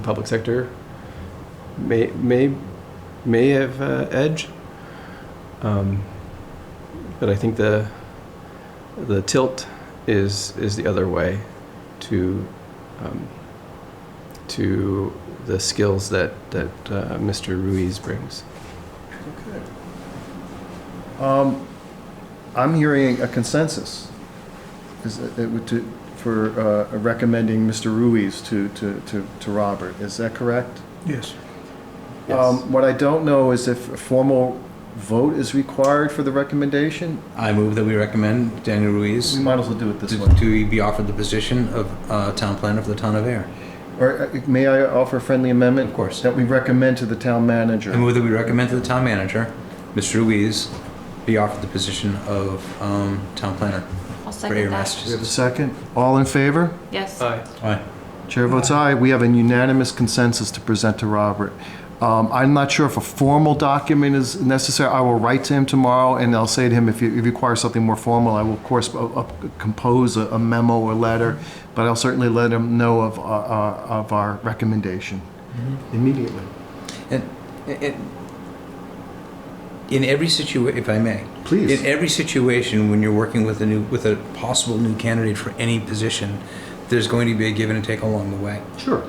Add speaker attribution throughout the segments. Speaker 1: public sector may may may have uh, edge. Um, but I think the the tilt is is the other way to um, to the skills that that uh, Mr. Ruiz brings.
Speaker 2: Okay. Um, I'm hearing a consensus. Is it, it would to, for, uh, recommending Mr. Ruiz to, to, to, to Robert. Is that correct?
Speaker 3: Yes.
Speaker 2: Um, what I don't know is if a formal vote is required for the recommendation.
Speaker 4: I move that we recommend Daniel Ruiz
Speaker 2: We might as well do it this
Speaker 4: to
Speaker 2: way.
Speaker 4: to be offered the position of uh, town planner for the town of Air.
Speaker 2: Or uh, may I offer a friendly amendment?
Speaker 4: Of course.
Speaker 2: That we recommend to the town
Speaker 4: I
Speaker 2: manager.
Speaker 4: move that we recommend to the town manager, Mr. Ruiz, be offered the position of um, town planner
Speaker 5: I'll
Speaker 4: for Air
Speaker 5: second that.
Speaker 2: We have a
Speaker 4: Massachusetts.
Speaker 2: second. All in favor?
Speaker 5: Yes.
Speaker 4: Aye.
Speaker 2: Chair votes aye. We have a unanimous consensus to present to Robert. Um, I'm not sure if a formal document is necessary. I will write to him tomorrow, and I'll say to him, if you if you require something more formal, I will, of course, uh, uh, compose a a memo or letter, but I'll certainly let him know of our- our- of our recommendation Mm-hmm. immediately.
Speaker 4: And, and in every situation, if I may,
Speaker 2: Please.
Speaker 4: in every situation when you're working with a new, with a possible new candidate for any position, there's going to be a give and take along the way.
Speaker 2: Sure.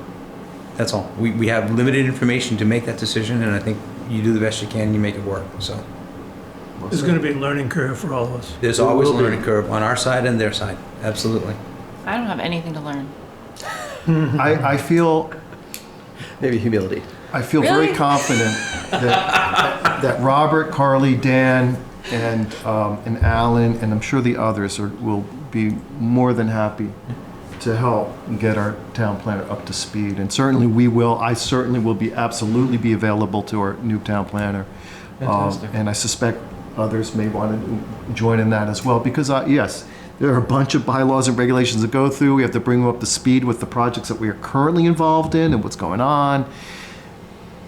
Speaker 4: That's all. We, we have limited information to make that decision, and I think you do the best you can and you make it work. So
Speaker 3: There's going to be a learning curve for all of us.
Speaker 4: there's
Speaker 2: There
Speaker 4: always a
Speaker 2: will be.
Speaker 4: learning curve on our side and their side. Absolutely.
Speaker 5: I don't have anything to learn.
Speaker 2: I I feel
Speaker 1: Maybe humility.
Speaker 2: I feel very
Speaker 5: Really?
Speaker 2: confident that, that Robert, Carly, Dan, and, um, and Alan, and I'm sure the others are, will be more than happy to help get our town planner up to speed. And certainly we will, I certainly will be, absolutely be available to our new town planner. Um,
Speaker 1: Fantastic.
Speaker 2: And I suspect others may want to join in that as well, because, uh, yes, there are a bunch of bylaws and regulations to go through. We have to bring them up to speed with the projects that we are currently involved in and what's going on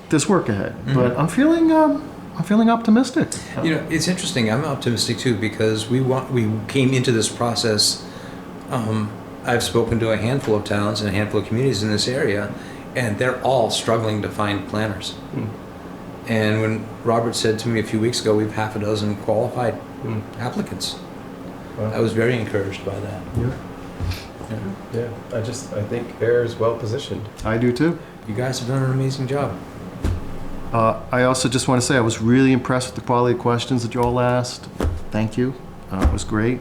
Speaker 2: there's work ahead,
Speaker 4: Mm-hmm.
Speaker 2: but I'm feeling um, I'm feeling optimistic.
Speaker 4: You know, it's interesting. I'm optimistic too because we want we came into this process. Um, I've spoken to a handful of towns and a handful of communities in this area, and they're all struggling to find planners.
Speaker 1: Hmm.
Speaker 4: And when Robert said to me a few weeks ago, we have half a dozen qualified
Speaker 1: Hmm.
Speaker 4: applicants.
Speaker 1: Wow.
Speaker 4: I was very encouraged by that.
Speaker 1: Yeah, I just I think Air is well positioned.
Speaker 2: I do too.
Speaker 4: You guys have done an amazing job.
Speaker 2: Uh, I also just want to say I was really impressed with the quality of questions that you all asked. Thank you. Uh, it was great.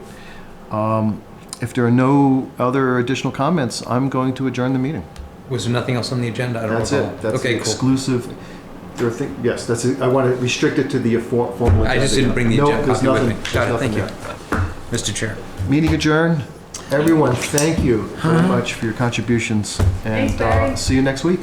Speaker 2: Um, if there are no other additional comments, I'm going to adjourn the meeting.
Speaker 4: Was there nothing else on the agenda? I don't
Speaker 2: that's
Speaker 4: recall.
Speaker 2: it. That's
Speaker 4: okay,
Speaker 2: the
Speaker 4: cool.
Speaker 2: exclusive. There are thi- yes, that's it. I want to restrict it to the for- formal.
Speaker 4: I just didn't bring the
Speaker 2: no,
Speaker 4: agenda
Speaker 2: there's
Speaker 4: copy with
Speaker 2: nothing,
Speaker 4: me. Got it.
Speaker 2: there's
Speaker 4: Thank you,
Speaker 2: nothing
Speaker 4: Mr. Chair.
Speaker 2: there. Meeting adjourned. Everyone, thank you very much for your contributions, and
Speaker 5: Thanks, Barry.
Speaker 2: uh, see you next week.